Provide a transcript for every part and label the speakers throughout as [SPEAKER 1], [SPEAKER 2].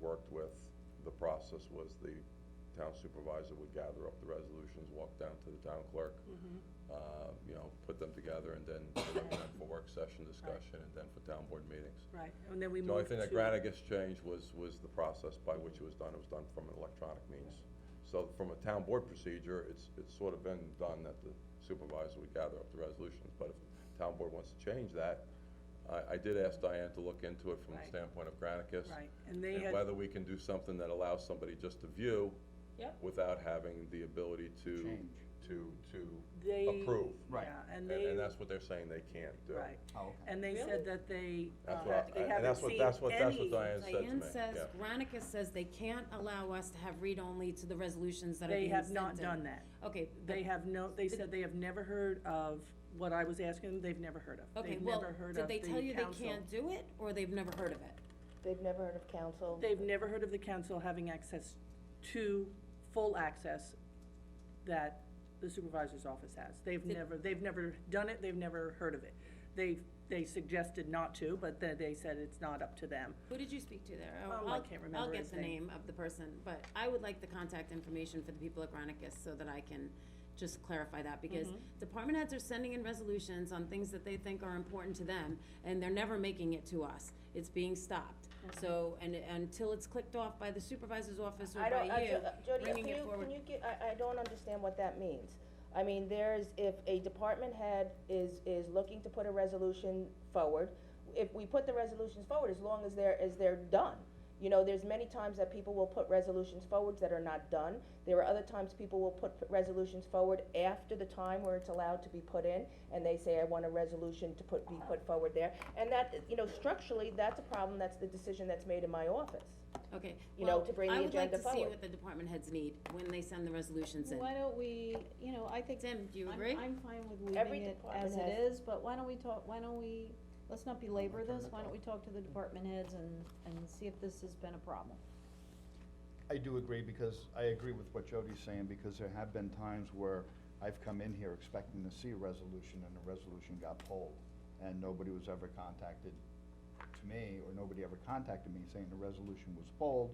[SPEAKER 1] worked with, the process was the town supervisor would gather up the resolutions, walk down to the town clerk,
[SPEAKER 2] Mm-hmm.
[SPEAKER 1] uh, you know, put them together, and then direct them for work session discussion, and then for town board meetings.
[SPEAKER 2] Right, and then we
[SPEAKER 1] The only
[SPEAKER 2] moved
[SPEAKER 1] thing that
[SPEAKER 2] to,
[SPEAKER 1] Granite gets changed was, was the process by which it was done, it was done from an electronic means. So from a town board procedure, it's, it's sort of been done that the supervisor would gather up the resolutions, but if the town board wants to change that, I, I did ask Diane to look into it from the
[SPEAKER 2] Right.
[SPEAKER 1] standpoint of Granicus.
[SPEAKER 2] right, and they
[SPEAKER 1] And
[SPEAKER 2] had,
[SPEAKER 1] whether we can do something that allows somebody just to view.
[SPEAKER 3] Yep.
[SPEAKER 1] Without having the ability to,
[SPEAKER 4] Change.
[SPEAKER 1] to, to
[SPEAKER 2] they.
[SPEAKER 1] approve.
[SPEAKER 4] Right.
[SPEAKER 2] Yeah,
[SPEAKER 1] And,
[SPEAKER 2] and they,
[SPEAKER 1] and that's what they're saying they can't do.
[SPEAKER 2] right,
[SPEAKER 4] Oh, okay.
[SPEAKER 2] and they
[SPEAKER 3] Really?
[SPEAKER 2] said that they,
[SPEAKER 1] That's
[SPEAKER 2] uh,
[SPEAKER 1] what,
[SPEAKER 2] they
[SPEAKER 1] I- and that's
[SPEAKER 2] haven't
[SPEAKER 1] what,
[SPEAKER 2] seen
[SPEAKER 1] that's what, that's what
[SPEAKER 2] any-
[SPEAKER 1] Diane said to me, yeah.
[SPEAKER 3] Diane says, Granicus says they can't allow us to have read-only to the resolutions that are
[SPEAKER 2] They
[SPEAKER 3] being
[SPEAKER 2] have
[SPEAKER 3] sent in.
[SPEAKER 2] not done that.
[SPEAKER 3] Okay, but,
[SPEAKER 2] They have no, they said they have never heard of what I was asking, them. they've never heard of.
[SPEAKER 3] okay,
[SPEAKER 2] They've
[SPEAKER 3] well,
[SPEAKER 2] never heard
[SPEAKER 3] did
[SPEAKER 2] of
[SPEAKER 3] they
[SPEAKER 2] the
[SPEAKER 3] tell you they
[SPEAKER 2] council.
[SPEAKER 3] can't do it, or they've never heard of it?
[SPEAKER 5] They've never heard of council.
[SPEAKER 2] They've never heard of the council having access to, full access that the supervisor's office has. They've
[SPEAKER 3] Did-
[SPEAKER 2] never, they've never done it, they've never heard of it. They, they suggested not to, but then they said it's not up to them.
[SPEAKER 3] Who did you speak to there?
[SPEAKER 2] Oh, I can't remember
[SPEAKER 3] will get
[SPEAKER 2] his
[SPEAKER 3] the
[SPEAKER 2] name.
[SPEAKER 3] name of the person, but I would like the contact information for the people at Granicus so that I can just clarify that, because
[SPEAKER 2] Mm-hmm.
[SPEAKER 3] department heads are sending in resolutions on things that they think are important to them, and they're never making it to us. It's being stopped.
[SPEAKER 2] Mm-hmm.
[SPEAKER 3] So, and, until it's clicked off by the supervisor's office or
[SPEAKER 5] I don't,
[SPEAKER 3] by
[SPEAKER 5] I,
[SPEAKER 3] you,
[SPEAKER 5] Jody, can
[SPEAKER 3] bringing
[SPEAKER 5] you,
[SPEAKER 3] it forward.
[SPEAKER 5] can you get, I, I don't understand what that means. I mean, there's, if a department head is, is looking to put a resolution forward, if we put the resolutions forward, as long as they're, as they're done. You know, there's many times that people will put resolutions forwards that are not done. There are other times people will put resolutions forward after the time where it's allowed to be put in, and they say, I want a resolution to put, be put forward there. And that, you know, structurally, that's a problem, that's the decision that's made in my office.
[SPEAKER 3] Okay,
[SPEAKER 5] you know,
[SPEAKER 3] well,
[SPEAKER 5] to bring the agenda
[SPEAKER 3] I would like to see
[SPEAKER 5] forward.
[SPEAKER 3] what the department heads need when they send the resolutions in.
[SPEAKER 6] Why don't we, you know, I think.
[SPEAKER 3] Tim, do you
[SPEAKER 6] I'm-
[SPEAKER 3] agree?
[SPEAKER 6] I'm fine with
[SPEAKER 5] Every
[SPEAKER 6] leaving it
[SPEAKER 5] department
[SPEAKER 6] as it
[SPEAKER 5] has-
[SPEAKER 6] is, but why don't we talk, why don't we, let's not belabor this, why don't we talk to the department heads and, and see if this has been a problem?
[SPEAKER 4] I do agree, because I agree with what Jody's saying, because there have been times where I've come in here expecting to see a resolution, and the resolution got pulled, and nobody was ever contacted to me, or nobody ever contacted me saying the resolution was pulled,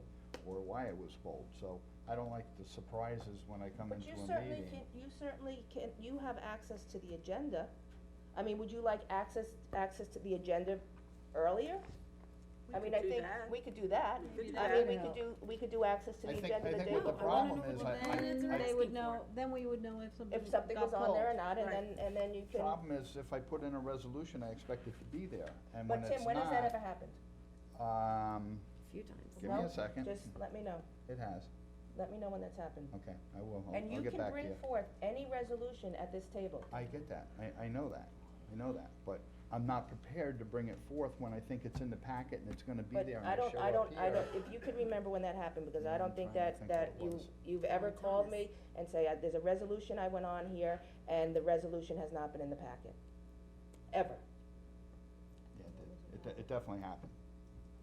[SPEAKER 4] or why it was pulled, so I don't like the surprises when I come
[SPEAKER 5] But
[SPEAKER 4] into
[SPEAKER 5] you
[SPEAKER 4] a meeting.
[SPEAKER 5] certainly can, you certainly can, you have access to the agenda. I mean, would you like access, access to the agenda earlier? I mean, I think we could do that.
[SPEAKER 2] We could do
[SPEAKER 5] I
[SPEAKER 2] that.
[SPEAKER 5] mean, we could do, we could do access to
[SPEAKER 4] I
[SPEAKER 5] the
[SPEAKER 4] think-
[SPEAKER 5] agenda
[SPEAKER 4] I
[SPEAKER 5] the
[SPEAKER 4] think
[SPEAKER 5] day
[SPEAKER 4] what the
[SPEAKER 5] before.
[SPEAKER 3] wanna know
[SPEAKER 4] problem is,
[SPEAKER 3] what
[SPEAKER 4] I,
[SPEAKER 3] the minutes are
[SPEAKER 4] I, I
[SPEAKER 6] They
[SPEAKER 3] asking
[SPEAKER 6] would know,
[SPEAKER 3] for.
[SPEAKER 6] then we would know if something
[SPEAKER 5] If something was
[SPEAKER 6] got
[SPEAKER 5] on there or
[SPEAKER 6] pulled.
[SPEAKER 5] not, and
[SPEAKER 2] Right.
[SPEAKER 5] then, and then you can,
[SPEAKER 4] Problem is, if I put in a resolution, I expect it to be there, and when
[SPEAKER 5] but
[SPEAKER 4] it's
[SPEAKER 5] Tim, when has that ever
[SPEAKER 4] not,
[SPEAKER 5] happened?
[SPEAKER 4] um,
[SPEAKER 3] A few times.
[SPEAKER 4] give me
[SPEAKER 5] No?
[SPEAKER 4] a second,
[SPEAKER 5] Just let me know,
[SPEAKER 4] it has,
[SPEAKER 5] let me know when that's happened.
[SPEAKER 4] okay, I will, I'll,
[SPEAKER 5] And
[SPEAKER 4] I'll
[SPEAKER 5] you
[SPEAKER 4] get
[SPEAKER 5] can
[SPEAKER 4] back to you.
[SPEAKER 5] bring forth any resolution at this table.
[SPEAKER 4] I get that, I, I know that, I know that, but I'm not prepared to bring it forth when I think it's in the packet and it's gonna be
[SPEAKER 5] But
[SPEAKER 4] there and
[SPEAKER 5] I
[SPEAKER 4] I
[SPEAKER 5] don't,
[SPEAKER 4] show
[SPEAKER 5] I
[SPEAKER 4] up
[SPEAKER 5] don't,
[SPEAKER 4] here.
[SPEAKER 5] I don't, if you could remember when that happened, because I don't think
[SPEAKER 4] trying to
[SPEAKER 5] that,
[SPEAKER 4] think
[SPEAKER 5] that
[SPEAKER 4] what it
[SPEAKER 5] you,
[SPEAKER 4] was.
[SPEAKER 5] you've ever
[SPEAKER 3] tell
[SPEAKER 5] called
[SPEAKER 3] us.
[SPEAKER 5] me and say, "Uh, there's a resolution I went on here, and the resolution has not been in the packet. Ever.
[SPEAKER 4] Yeah, it did. It, de- it definitely happened.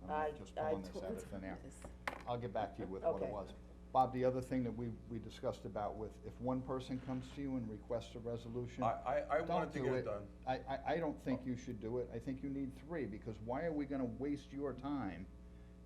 [SPEAKER 4] I'm
[SPEAKER 5] I-
[SPEAKER 4] just
[SPEAKER 5] I
[SPEAKER 4] pulling this
[SPEAKER 5] to-
[SPEAKER 4] out of thin air.
[SPEAKER 3] This-
[SPEAKER 4] I'll get back to you with what it
[SPEAKER 5] Okay.
[SPEAKER 4] was. Bob, the other thing that we, we discussed about with, if one person comes to you and requests a resolution,
[SPEAKER 1] I, I, I wanted
[SPEAKER 4] don't
[SPEAKER 1] to
[SPEAKER 4] do
[SPEAKER 1] get it done.
[SPEAKER 4] I, I, I don't think you should do it. I think you need three, because why are we gonna waste your time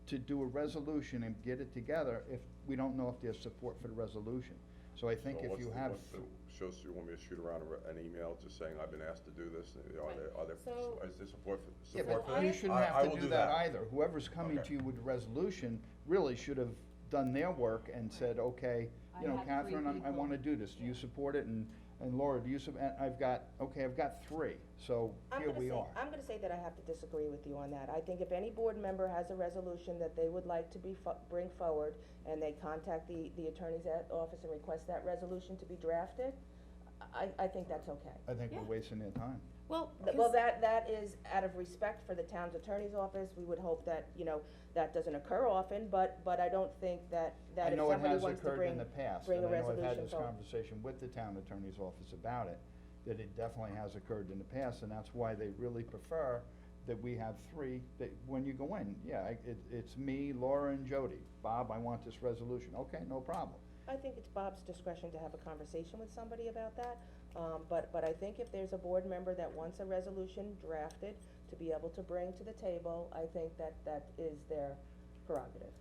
[SPEAKER 4] to do a resolution and get it together if we don't know if there's support for the resolution? So I think
[SPEAKER 1] So
[SPEAKER 4] if
[SPEAKER 1] what's
[SPEAKER 4] you
[SPEAKER 1] the-
[SPEAKER 4] have,
[SPEAKER 1] what's the- Shows, you want me to shoot around a re- an email just saying, I've been asked to do this, and are there, are there,
[SPEAKER 3] So-
[SPEAKER 1] is there support for,
[SPEAKER 4] yeah,
[SPEAKER 1] support
[SPEAKER 4] but
[SPEAKER 1] for that?
[SPEAKER 4] you shouldn't
[SPEAKER 1] I- I
[SPEAKER 4] have
[SPEAKER 1] will
[SPEAKER 4] to do that either. Whoever's coming
[SPEAKER 1] Okay.
[SPEAKER 4] to you with a resolution really should have done their work and said, okay, you
[SPEAKER 6] I
[SPEAKER 4] know,
[SPEAKER 6] have three
[SPEAKER 4] Catherine, I'm- I
[SPEAKER 6] people."
[SPEAKER 4] wanna do this. Do you support it? And, and Laura, do you sup, and I've got, okay, I've got three, so
[SPEAKER 5] I'm
[SPEAKER 4] here
[SPEAKER 5] gonna
[SPEAKER 4] we
[SPEAKER 5] say,
[SPEAKER 4] are.
[SPEAKER 5] I'm gonna say that I have to disagree with you on that. I think if any board member has a resolution that they would like to be, fo- bring forward, and they contact the, the attorney's at- office and request that resolution to be drafted, I, I think that's okay.
[SPEAKER 4] I think we're
[SPEAKER 3] Yeah.
[SPEAKER 4] wasting their time.
[SPEAKER 3] Well,
[SPEAKER 5] Th- Well,
[SPEAKER 3] 'cause-
[SPEAKER 5] that, that is out of respect for the town's attorney's office, we would hope that, you know, that doesn't occur often, but, but I don't think that, that if somebody wants to
[SPEAKER 4] I know it has occurred in
[SPEAKER 5] bring,
[SPEAKER 4] the past,
[SPEAKER 5] bring
[SPEAKER 4] and
[SPEAKER 5] a
[SPEAKER 4] I know I've had
[SPEAKER 5] resolution
[SPEAKER 4] this
[SPEAKER 5] forward.
[SPEAKER 4] conversation with the town attorney's office about it, that it definitely has occurred in the past, and that's why they really prefer that we have three, that, when you go in, yeah, I- it, it's me, Laura, and Jody. Bob, I want this resolution, okay, no problem.
[SPEAKER 5] I think it's Bob's discretion to have a conversation with somebody about that. Um, but, but I think if there's a board member that wants a resolution drafted to be able to bring to the table, I think that that is their prerogative.